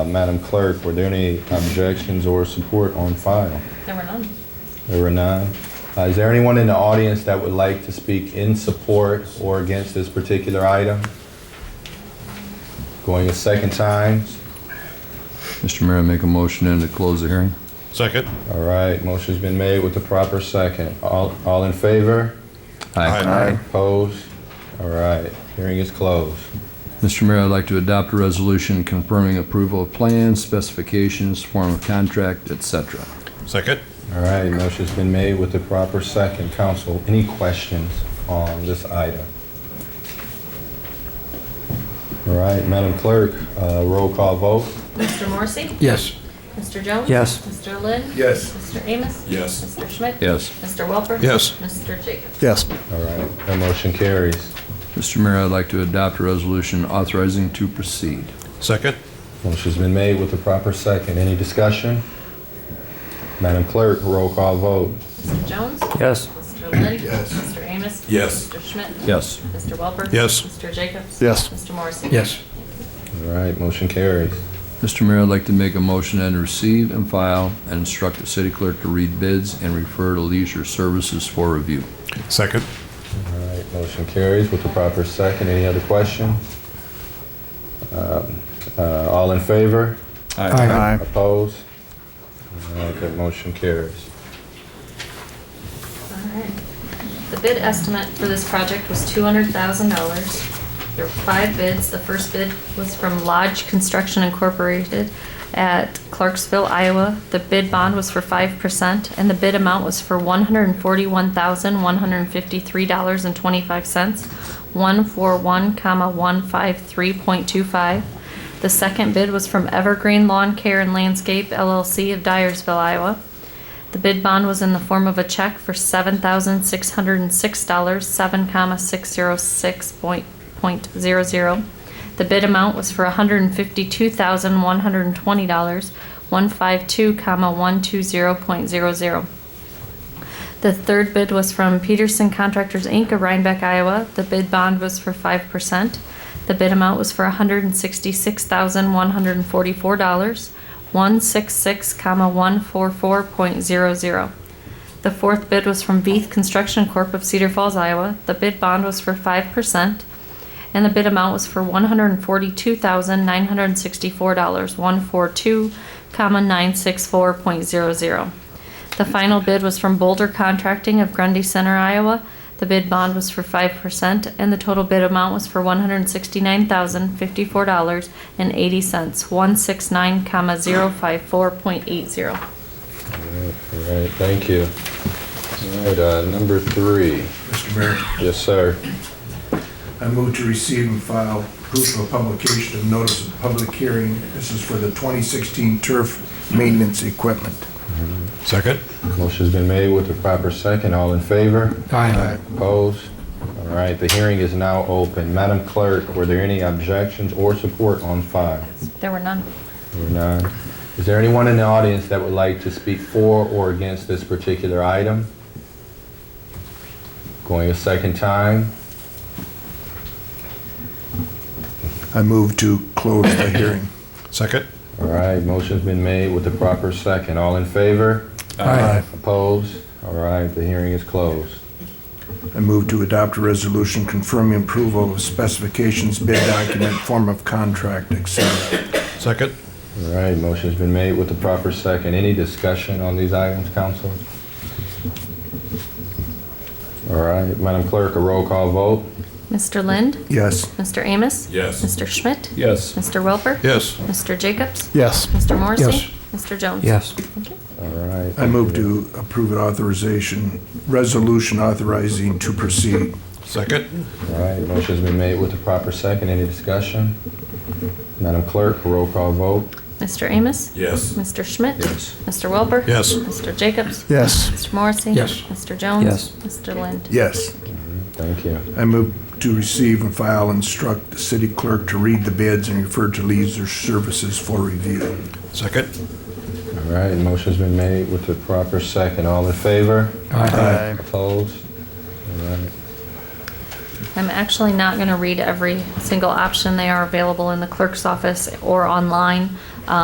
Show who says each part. Speaker 1: Uh, Madam Clerk, were there any objections or support on file?
Speaker 2: There were none.
Speaker 1: There were none. Uh, Is there anyone in the audience that would like to speak in support or against this particular item? Going a second time.
Speaker 3: Mr. Mayor, I make a motion then to close the hearing.
Speaker 4: Second.
Speaker 1: All right, motion's been made with the proper second. All all in favor?
Speaker 4: Aye.
Speaker 1: Opposed? All right, hearing is closed.
Speaker 3: Mr. Mayor, I'd like to adopt a resolution confirming approval of plans, specifications, form of contract, et cetera.
Speaker 4: Second.
Speaker 1: All right, motion's been made with the proper second. Council, any questions on this item? All right, Madam Clerk, uh, roll call vote.
Speaker 2: Mr. Morrissey?
Speaker 3: Yes.
Speaker 2: Mr. Jones?
Speaker 3: Yes.
Speaker 2: Mr. Lynn?
Speaker 5: Yes.
Speaker 2: Mr. Amos?
Speaker 4: Yes.
Speaker 2: Mr. Schmidt?
Speaker 3: Yes.
Speaker 2: Mr. Welper?
Speaker 4: Yes.
Speaker 2: Mr. Jacobs?
Speaker 3: Yes.
Speaker 1: All right, that motion carries.
Speaker 3: Mr. Mayor, I'd like to adopt a resolution authorizing to proceed.
Speaker 4: Second.
Speaker 1: Motion's been made with the proper second. Any discussion? Madam Clerk, roll call vote.
Speaker 2: Mr. Jones?
Speaker 3: Yes.
Speaker 2: Mr. Lynn?
Speaker 5: Yes.
Speaker 2: Mr. Amos?
Speaker 4: Yes.
Speaker 2: Mr. Schmidt?
Speaker 3: Yes.
Speaker 2: Mr. Welper?
Speaker 4: Yes.
Speaker 2: Mr. Jacobs?
Speaker 3: Yes.
Speaker 2: Mr. Morrissey?
Speaker 1: All right, motion carries.
Speaker 3: Mr. Mayor, I'd like to make a motion then to receive and file and instruct the city clerk to read bids and refer to leisure services for review.
Speaker 4: Second.
Speaker 1: All right, motion carries with the proper second. Any other questions? Uh, All in favor?
Speaker 5: Aye.
Speaker 1: Opposed? All right, that motion carries.
Speaker 2: Alright. The bid estimate for this project was two hundred thousand dollars. There were five bids. The first bid was from Lodge Construction Incorporated at Clarksville, Iowa. The bid bond was for five percent, and the bid amount was for one hundred and forty-one thousand, one hundred and fifty-three dollars and twenty-five cents, one four one comma one five three point two five. The second bid was from Evergreen Lawn Care and Landscape LLC of Dyersville, Iowa. The bid bond was in the form of a check for seven thousand six hundred and six dollars, seven comma six zero six point, point zero zero. The bid amount was for hundred and fifty-two thousand one hundred and twenty dollars, one five two comma one two zero point zero zero. The third bid was from Peterson Contractors, Inc. of Rhinebeck, Iowa. The bid bond was for five percent. The bid amount was for hundred and sixty-six thousand, one hundred and forty-four dollars, one six six, comma, one four four point zero zero. The fourth bid was from Veith Construction Corp. of Cedar Falls, Iowa. The bid bond was for five percent. And the bid amount was for one hundred and forty-two thousand, nine hundred and sixty-four dollars, one four two, comma, nine six four point zero zero. The final bid was from Boulder Contracting of Grundy Center, Iowa. The bid bond was for five percent, and the total bid amount was for one hundred and sixty-nine thousand, fifty-four dollars and eighty cents, one six nine, comma, zero five four point eight zero.
Speaker 1: All right, thank you. All right, uh, number three.
Speaker 5: Mr. Mayor,
Speaker 1: Yes, sir.
Speaker 5: I move to receive and file proof of publication of notice of public hearing. This is for the 2016 turf maintenance equipment.
Speaker 4: Second.
Speaker 1: Motion's been made with the proper second. All in favor?
Speaker 5: Aye.
Speaker 1: Opposed? All right, the hearing is now open. Madam Clerk, were there any objections or support on file?
Speaker 2: There were none.
Speaker 1: There were none. Is there anyone in the audience that would like to speak for or against this particular item? Going a second time?
Speaker 5: I move to close the hearing.
Speaker 4: Second.
Speaker 1: All right, motion's been made with the proper second. All in favor?
Speaker 5: Aye.
Speaker 1: Opposed? All right, the hearing is closed.
Speaker 5: I move to adopt a resolution confirming approval of specifications, bid document, form of contract, et cetera.
Speaker 4: Second.
Speaker 1: All right, motion's been made with the proper second. Any discussion on these items, council? All right, Madam Clerk, a roll call vote?
Speaker 2: Mr. Lind?
Speaker 5: Yes.
Speaker 2: Mr. Amos?
Speaker 4: Yes.
Speaker 2: Mr. Schmidt?
Speaker 3: Yes.
Speaker 2: Mr. Welper?
Speaker 4: Yes.
Speaker 2: Mr. Jacobs?
Speaker 5: Yes.
Speaker 2: Mr. Morrissey?
Speaker 5: Yes.
Speaker 2: Mr. Jones?
Speaker 3: Yes.
Speaker 2: Thank you.
Speaker 1: All right.
Speaker 5: I move to approve an authorization, resolution authorizing to proceed.
Speaker 4: Second.
Speaker 1: All right, motion's been made with the proper second. Any discussion? Madam Clerk, a roll call vote?
Speaker 2: Mr. Amos?
Speaker 4: Yes.
Speaker 2: Mr. Schmidt?
Speaker 1: Yes.
Speaker 2: Mr. Welper?
Speaker 4: Yes.
Speaker 2: Mr. Jacobs?
Speaker 5: Yes.
Speaker 2: Mr. Morrissey?
Speaker 5: Yes.
Speaker 2: Mr. Jones?
Speaker 3: Yes.
Speaker 2: Mr. Lind?
Speaker 5: Yes.
Speaker 1: Thank you.
Speaker 5: I move to receive and file instruct the city clerk to read the bids and refer to leisure services for review.
Speaker 4: Second.
Speaker 1: All right, motion's been made with the proper second. All in favor?
Speaker 5: Aye.
Speaker 1: Opposed? All right.
Speaker 2: I'm actually not going to read every single option. They are available in the clerk's office or online.